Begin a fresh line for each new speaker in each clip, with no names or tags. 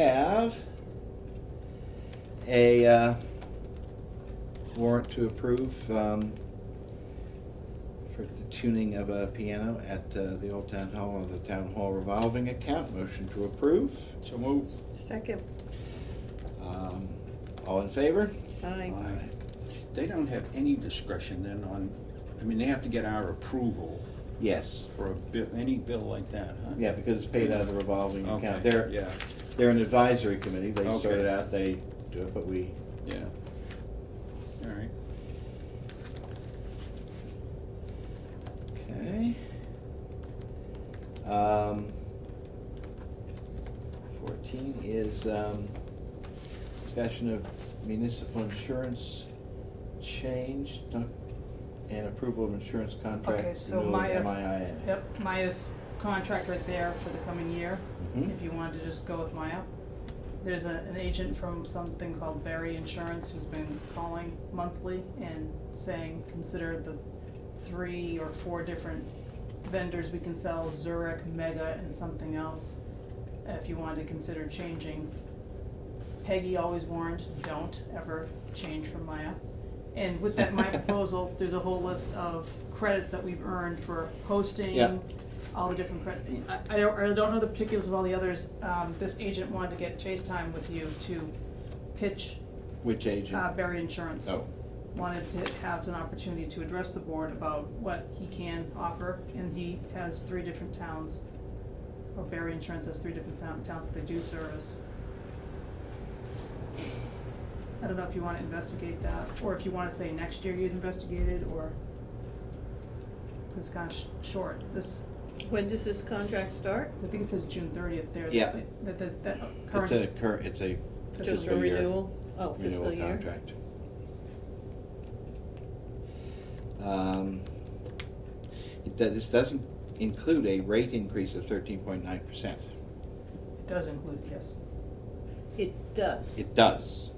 have a uh, warrant to approve um, for the tuning of a piano at uh, the Old Town Hall of the Town Hall revolving account. Motion to approve.
So move.
Second,
Um, All in favor?
aye.
Aye.
They don't have any discretion then on, I mean, they have to get our approval
Yes.
for a bill, any bill like that, huh?
Yeah, because it's paid out of the revolving account.
Okay,
They're,
yeah,
they're an advisory committee. They sort it
Okay.
out, they do it, but we,
yeah. All right.
okay. Um, Fourteen is, um, discussion of municipal insurance change doc- and approval of insurance
Okay,
contract
so
renewal with
Maya's,
MIA.
yep, Maya's contract right there for the coming year,
Mhm.
if you wanted to just go with Maya. There's a, an agent from something called Berry Insurance who's been calling monthly and saying, consider the three or four different vendors we can sell, Zurich, Mega, and something else, if you wanted to consider changing. Peggy always warned, don't ever change from Maya. And with that, my proposal, there's a whole list of credits that we've earned for
Yeah.
hosting, all the different credit, I, I don't, I don't know the particulars of all the others. Um, this agent wanted to get Chase Time with you to pitch,
Which agent?
uh, Berry Insurance
Oh,
wanted to have an opportunity to address the board about what he can offer, and he has three different towns, or Barry Insurance has three different town- towns that they do service. I don't know if you wanna investigate that, or if you wanna say next year you'd investigate it, or it's kinda sh- short, this,
When does this contract start?
I think it says June thirtieth there. that-
Yeah.
That, that, that
it's a
current,
cur, it's a
Just
Just a
fiscal year.
renewal? Oh, fiscal
renewal
year?
contract. Um, It, do- this doesn't include a rate increase of thirteen point nine percent.
it does include, yes,
It does.
It does.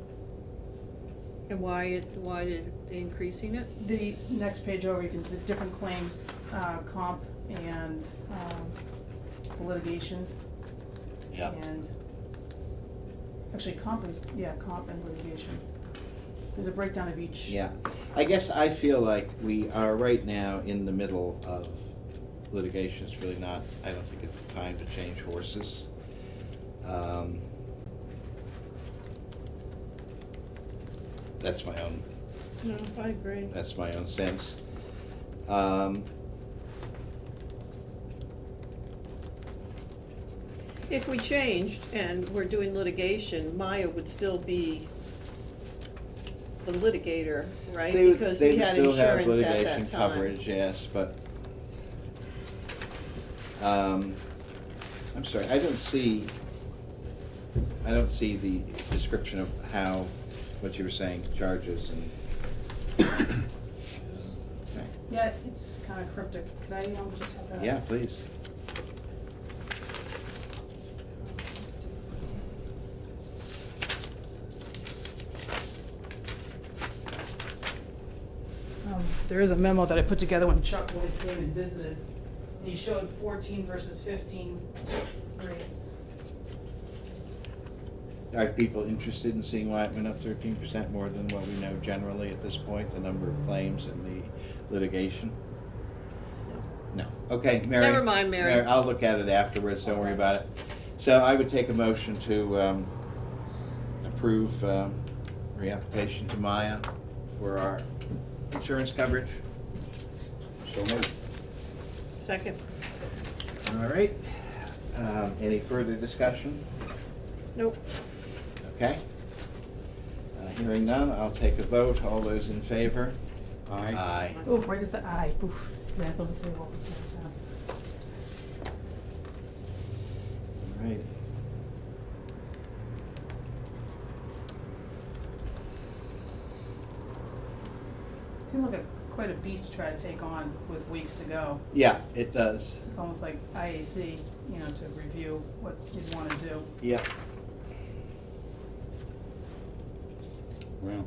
And why it, why did, increasing it?
The next page over, you can, the different claims, uh, comp and, um, litigation.
Yeah.
And, actually, comp is, yeah, comp and litigation. There's a breakdown of each.
Yeah. I guess I feel like we are right now in the middle of litigation. It's really not, I don't think it's the time to change horses. Um, That's my own
No, I agree.
That's my own sense. Um,
If we changed and we're doing litigation, Maya would still be the litigator, right?
they would-
Because
they
we
would
had
still have
insurance at
litigation
that time.
Coverage, yes, but, um, I'm sorry, I don't see, I don't see the description of how, what you were saying, charges and.
uh,
Okay.
Yeah, it's kinda cryptic. Could I, um, just have that?
Yeah, please.
Um, There is a memo that I put together when Chuck Wood came and visited, and he showed fourteen versus fifteen grades.
Are people interested in seeing why it went up thirteen percent more than what we know generally at this point, the number of claims and the litigation? No, okay, Mary.
Never mind, Mary.
I'll look at it afterwards, don't worry about it. So I would take a motion to um, approve um, reapplication to Maya for our insurance coverage.
So move.
Second,
All right, Um, any further discussion?
nope,
Okay. Uh, Hearing none, I'll take a vote, all those in favor?
Aye.
Aye.
Oh, right is the eye, oof, yeah, it's on the table at the same time.
All right.
Seems like a, quite a beast to try to take on with weeks to go.
Yeah, it does.
It's almost like IAC, you know, to review what you'd wanna do.
Yep.
Well,